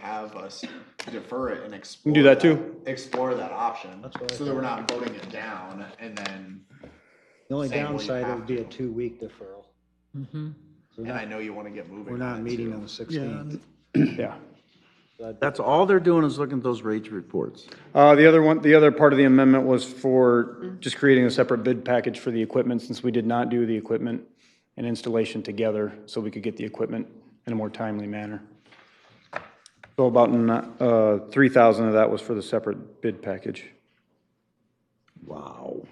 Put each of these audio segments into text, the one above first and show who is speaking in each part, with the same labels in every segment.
Speaker 1: have us defer it and explore.
Speaker 2: can do that too.
Speaker 1: Explore that option,
Speaker 3: That's what I
Speaker 1: so that we're not voting it down and then,
Speaker 3: The only
Speaker 1: Saying, well, you
Speaker 3: downside
Speaker 1: have
Speaker 3: would be
Speaker 1: to.
Speaker 3: a two-week deferral. We're
Speaker 1: and I
Speaker 3: not,
Speaker 1: know you wanna get moving.
Speaker 3: we're
Speaker 1: on
Speaker 3: not
Speaker 1: it,
Speaker 3: meeting
Speaker 1: too.
Speaker 3: on the
Speaker 4: Yeah,
Speaker 3: sixteenth.
Speaker 2: Yeah.
Speaker 4: that's all they're doing is looking at those rage reports.
Speaker 2: Uh, the other one, the other part of the amendment was for just creating a separate bid package for the equipment, since we did not do the equipment and installation together, so we could get the equipment in a more timely manner. So about, uh, three thousand of that was for the separate bid package.
Speaker 4: Wow.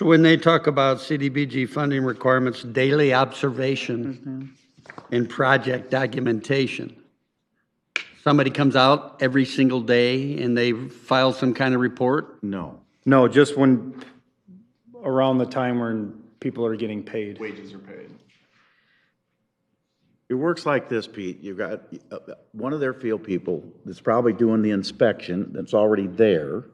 Speaker 5: When they talk about CDBG funding requirements, daily observation and project documentation, somebody comes out every single day and they file some kind of report?
Speaker 4: No.
Speaker 2: No, just when, around the time when people are getting paid.
Speaker 1: Wages are paid.
Speaker 4: It works like this, Pete. You've got uh, one of their field people that's probably doing the inspection that's already there.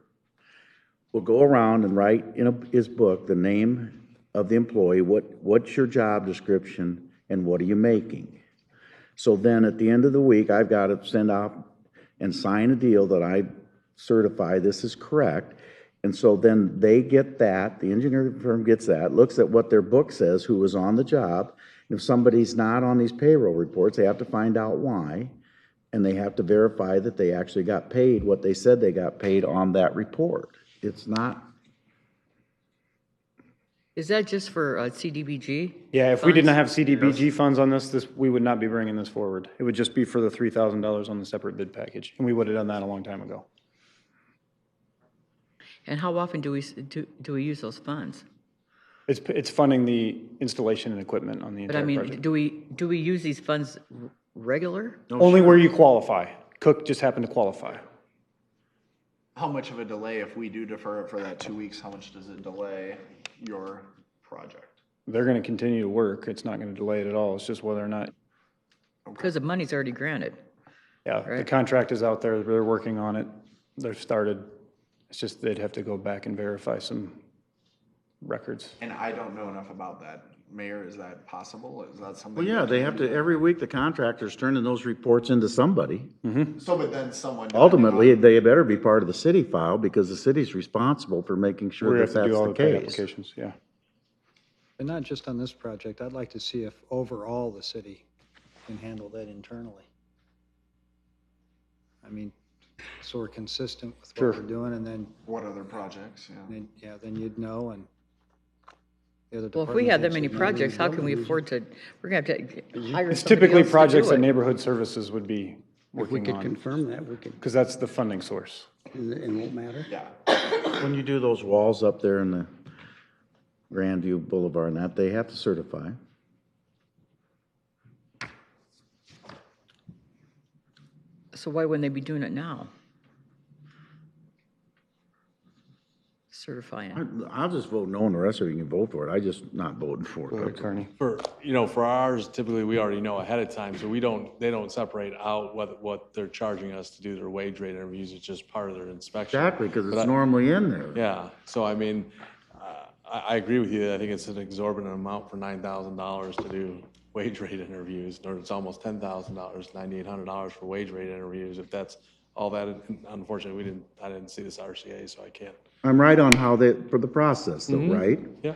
Speaker 4: Will go around and write in a- his book the name of the employee, what, what's your job description and what are you making? So then at the end of the week, I've got to send out and sign a deal that I certify this is correct. And so then they get that, the engineering firm gets that, looks at what their book says, who was on the job. If somebody's not on these payroll reports, they have to find out why. And they have to verify that they actually got paid what they said they got paid on that report. It's not,
Speaker 6: Is that just for uh, CDBG?
Speaker 2: Yeah, if we did not have CDBG funds on this, this, we would not be bringing this forward. It would just be for the three thousand dollars on the separate bid package, and we would have done that a long time ago.
Speaker 6: And how often do we, s- do, do we use those funds?
Speaker 2: It's, it's funding the installation and equipment on the
Speaker 6: But I
Speaker 2: entire
Speaker 6: mean,
Speaker 2: project.
Speaker 6: do we, do we use these funds r- regular?
Speaker 2: Only where you qualify. Cook just happened to qualify.
Speaker 1: How much of a delay, if we do defer it for that two weeks, how much does it delay your project?
Speaker 2: They're going to continue to work. It's not going to delay it at all. It's just whether or not,
Speaker 6: Because the money's already granted.
Speaker 2: yeah, the contract is out there. They're working on it. They've started. It's just they'd have to go back and verify some records.
Speaker 1: And I don't know enough about that. Mayor, is that possible? Is that something?
Speaker 4: well, yeah,
Speaker 1: that
Speaker 4: they
Speaker 1: can
Speaker 4: have
Speaker 1: be
Speaker 4: to, every week the contractor's turning those reports into somebody.
Speaker 1: done? So, but then someone. depending
Speaker 4: Ultimately,
Speaker 1: on-
Speaker 4: they better be part of the city file because the city's responsible for making
Speaker 2: We're
Speaker 4: sure
Speaker 2: going
Speaker 4: that
Speaker 2: to have to do
Speaker 4: that's
Speaker 2: all
Speaker 4: the
Speaker 2: the paid
Speaker 4: case.
Speaker 2: applications, yeah.
Speaker 3: And not just on this project, I'd like to see if overall the city can handle that internally. I mean, so we're consistent with
Speaker 2: Sure.
Speaker 3: what we're doing, and then,
Speaker 1: What other projects, yeah.
Speaker 3: then, yeah, then you'd know, and the other
Speaker 6: Well, if we have that many
Speaker 3: department heads
Speaker 6: projects,
Speaker 3: would
Speaker 6: how
Speaker 3: know.
Speaker 6: can we afford to, we're going to have to hire
Speaker 2: It's
Speaker 6: somebody
Speaker 2: typically
Speaker 6: else to do
Speaker 2: projects that
Speaker 6: it.
Speaker 2: neighborhood services would be
Speaker 5: If we
Speaker 2: working
Speaker 5: could
Speaker 2: on,
Speaker 5: confirm that, we could,
Speaker 2: because that's the funding source.
Speaker 5: it won't matter.
Speaker 1: Yeah.
Speaker 4: When you do those walls up there in the Grandview Boulevard and that, they have to certify.
Speaker 6: So why wouldn't they be doing it now? Certifying it.
Speaker 4: I'll just vote no on the rest of it. You can vote for it. I just not voting for
Speaker 2: Go
Speaker 4: it.
Speaker 2: ahead, Kearney.
Speaker 7: For, you know, for ours, typically, we already know ahead of time, so we don't, they don't separate out what, what they're charging us to do their wage rate interviews, it's just part of their inspection.
Speaker 4: Exactly, because it's normally in there.
Speaker 7: Yeah, so I mean, uh, I, I agree with you, I think it's an exorbitant amount for nine thousand dollars to do wage rate interviews, or it's almost ten thousand dollars, ninety-eight hundred dollars for wage rate interviews, if that's all that, unfortunately, we didn't, I didn't see this RCA, so I can't.
Speaker 4: I'm right on how they, for the process though,
Speaker 2: Mm-hmm.
Speaker 4: right?
Speaker 7: Yeah,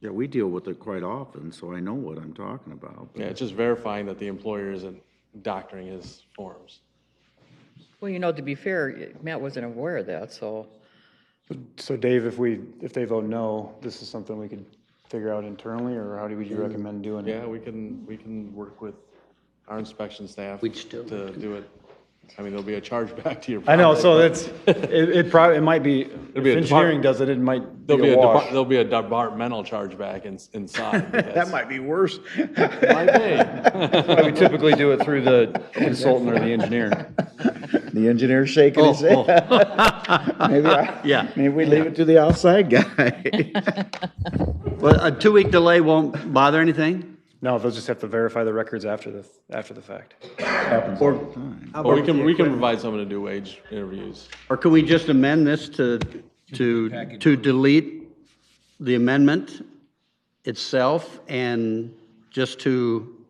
Speaker 4: Yeah, we deal with it quite often, so I know what I'm talking about.
Speaker 7: yeah, it's just verifying that the employer isn't doctoring his forms.
Speaker 6: Well, you know, to be fair, Matt wasn't aware of that, so
Speaker 2: So Dave, if we, if they vote no, this is something we could figure out internally, or how do you recommend doing it?
Speaker 7: Yeah, we can, we can work with our inspection staff.
Speaker 5: We'd still-
Speaker 7: To do it. I mean, there'll be a charge back to your.
Speaker 2: I know, so
Speaker 7: property,
Speaker 2: that's, it, it probably, it might be, if
Speaker 7: be a
Speaker 2: engineering
Speaker 7: depart-
Speaker 2: does it, it might
Speaker 7: but
Speaker 2: be
Speaker 7: There'll be
Speaker 2: a
Speaker 7: a, depart-
Speaker 2: wash.
Speaker 7: there'll be a departmental charge back in, inside. That
Speaker 4: Might be worse.
Speaker 7: might be.
Speaker 2: But We typically do it through the consultant or the engineer.
Speaker 4: The engineer shaking
Speaker 2: Oh,
Speaker 4: his head. Maybe I-
Speaker 5: Oh, Yeah.
Speaker 4: Maybe we leave it to the outside guy.
Speaker 5: Well, a two-week delay won't bother anything?
Speaker 2: No, they'll just have to verify the records after the, after the fact.
Speaker 7: Or we can, we can provide someone to do wage interviews.
Speaker 5: Or can we just amend this to, to, to delete the amendment itself and just to